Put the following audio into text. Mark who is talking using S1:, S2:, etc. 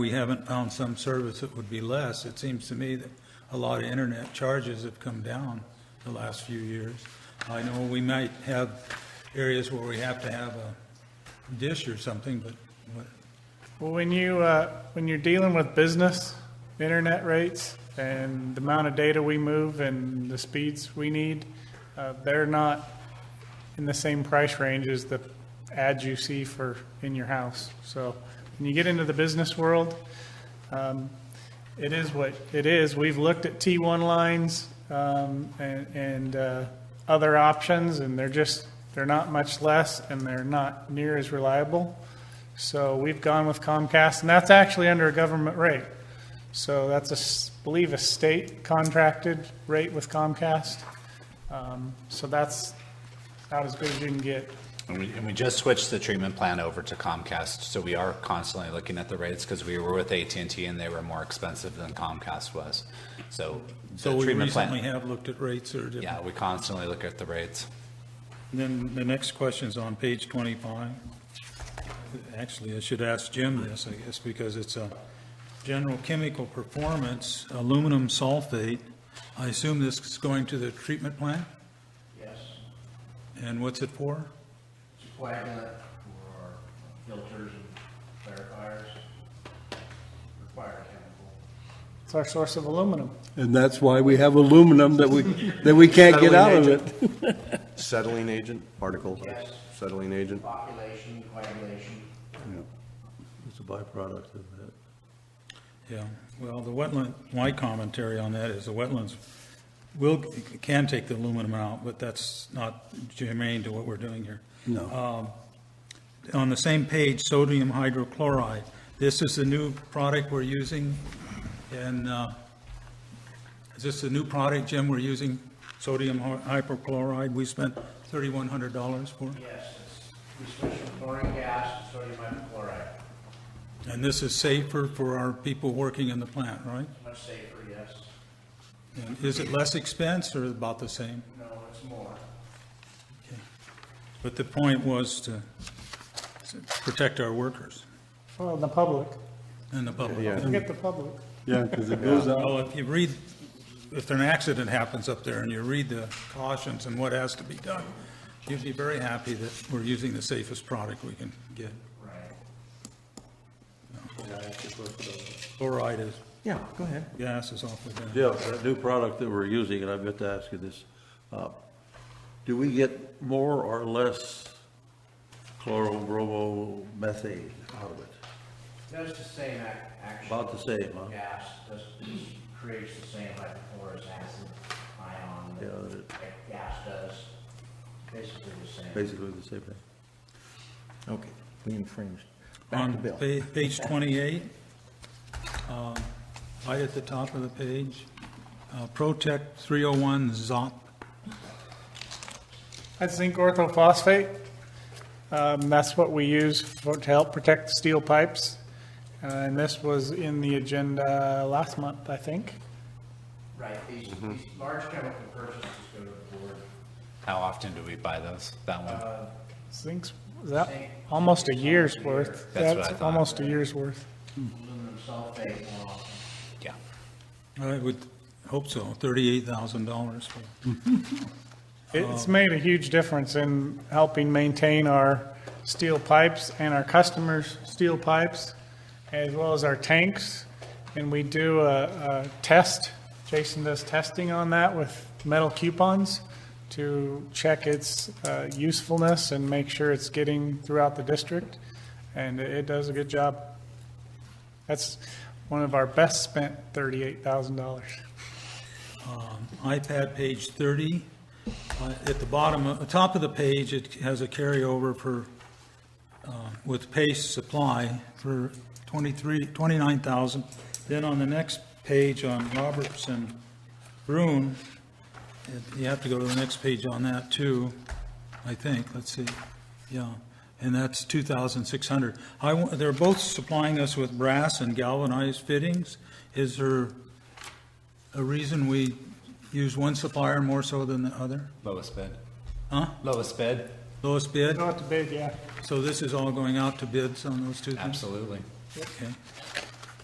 S1: we haven't found some service that would be less. It seems to me that a lot of internet charges have come down the last few years. I know we might have areas where we have to have a dish or something, but, but
S2: Well, when you, uh, when you're dealing with business, internet rates, and the amount of data we move and the speeds we need, uh, they're not in the same price range as the ads you see for, in your house. So when you get into the business world, um, it is what it is. We've looked at T1 lines um, and, and uh, other options, and they're just, they're not much less, and they're not near as reliable. So we've gone with Comcast, and that's actually under a government rate. So that's a, s- believe, a state contracted rate with Comcast. Um, So that's about as good as you can get.
S3: And we, and we just switched the treatment plan over to Comcast, so we are constantly looking at the rates because we were with AT&T and they were more expensive than Comcast was. So
S1: So
S3: the
S1: we
S3: treatment
S1: recently
S3: plan,
S1: have looked at rates that are different.
S3: yeah, we constantly look at the rates.
S1: Then the next question's on page 25. Actually, I should ask Jim this, I guess, because it's a general chemical performance, aluminum sulfate. I assume this is going to the treatment plant?
S4: Yes,
S1: And what's it for?
S4: it's a coagulant for our filters and clarifiers, required chemical.
S2: It's our source of aluminum.
S5: And that's why we have aluminum that we, that we can't get out of it.
S6: Settling agent, particle,
S4: Yes.
S6: settling agent.
S4: Population, coagulation,
S5: It's a byproduct of that.
S1: Yeah, well, the wetland, my commentary on that is the wetlands will, can take the aluminum out, but that's not germane to what we're doing here. Um,
S5: No.
S1: on the same page, sodium hydrochloride. This is the new product we're using, and uh, is this the new product, Jim, we're using? Sodium hy- hypochloride, we spent $3,100 for?
S4: yes, it's, we switch from chlorine gas to sodium hypochlorite,
S1: And this is safer for our people working in the plant, right?
S4: it's much safer, yes,
S1: And is it less expense or about the same?
S4: no, it's more.
S1: But the point was to to protect our workers
S2: Well, the public.
S1: and the public.
S6: Yeah.
S2: Forget the public.
S5: Yeah, because it goes out.
S1: Well, if you read, if an accident happens up there and you read the cautions and what has to be done, you'd be very happy that we're using the safest product we can get. Fluoride is,
S7: Yeah, go ahead.
S1: gas is awfully bad.
S7: Dale, that new product that we're using, and I've got to ask you this, uh, do we get more or less chlorobromomethane out of it?
S4: Does the same ac- action.
S7: About the same, huh?
S4: Gas, does, creates the same hypochlorous acid ion
S7: Yeah,
S4: that that gas does, basically the same.
S7: Basically the same thing.
S6: Okay, we infringed.
S1: On pa- page 28, um, right at the top of the page, uh, Protect 301 ZOP.
S2: That's zinc orthophosphate. Um, That's what we use for- to help protect steel pipes. Uh, And this was in the agenda last month, I think.
S4: Right, these,
S7: Mm-hmm.
S4: these large chemical purchases go to the board,
S3: How often do we buy those? That one?
S1: Uh,
S2: Zinc's, is that almost a year's worth?
S3: That's what I thought.
S2: Almost a year's worth.
S4: aluminum sulfate more often.
S3: Yeah.
S1: I would hope so, $38,000 for
S2: It's made a huge difference in helping maintain our steel pipes and our customers' steel pipes, as well as our tanks. And we do a, a test, Jason does testing on that with metal coupons to check its uh, usefulness and make sure it's getting throughout the district. And it- it does a good job. That's one of our best spent thirty-eight thousand dollars.
S1: iPad, page 30. Uh, At the bottom, of- the top of the page, it has a carryover for, uh, with Pace Supply for 23, 29,000. Then on the next page on Robertson Bruin, it- you have to go to the next page on that too, I think, let's see, yeah. And that's 2,600. I, wa- they're both supplying us with brass and galvanized fittings. Is there a reason we use one supplier more so than the other?
S3: Lowest bid.
S1: Huh? Mm-hmm.
S3: Lowest bid?
S1: Lowest bid?
S2: Not to bid, yeah.
S1: So this is all going out to bids on those two things?
S3: Absolutely.
S1: Okay.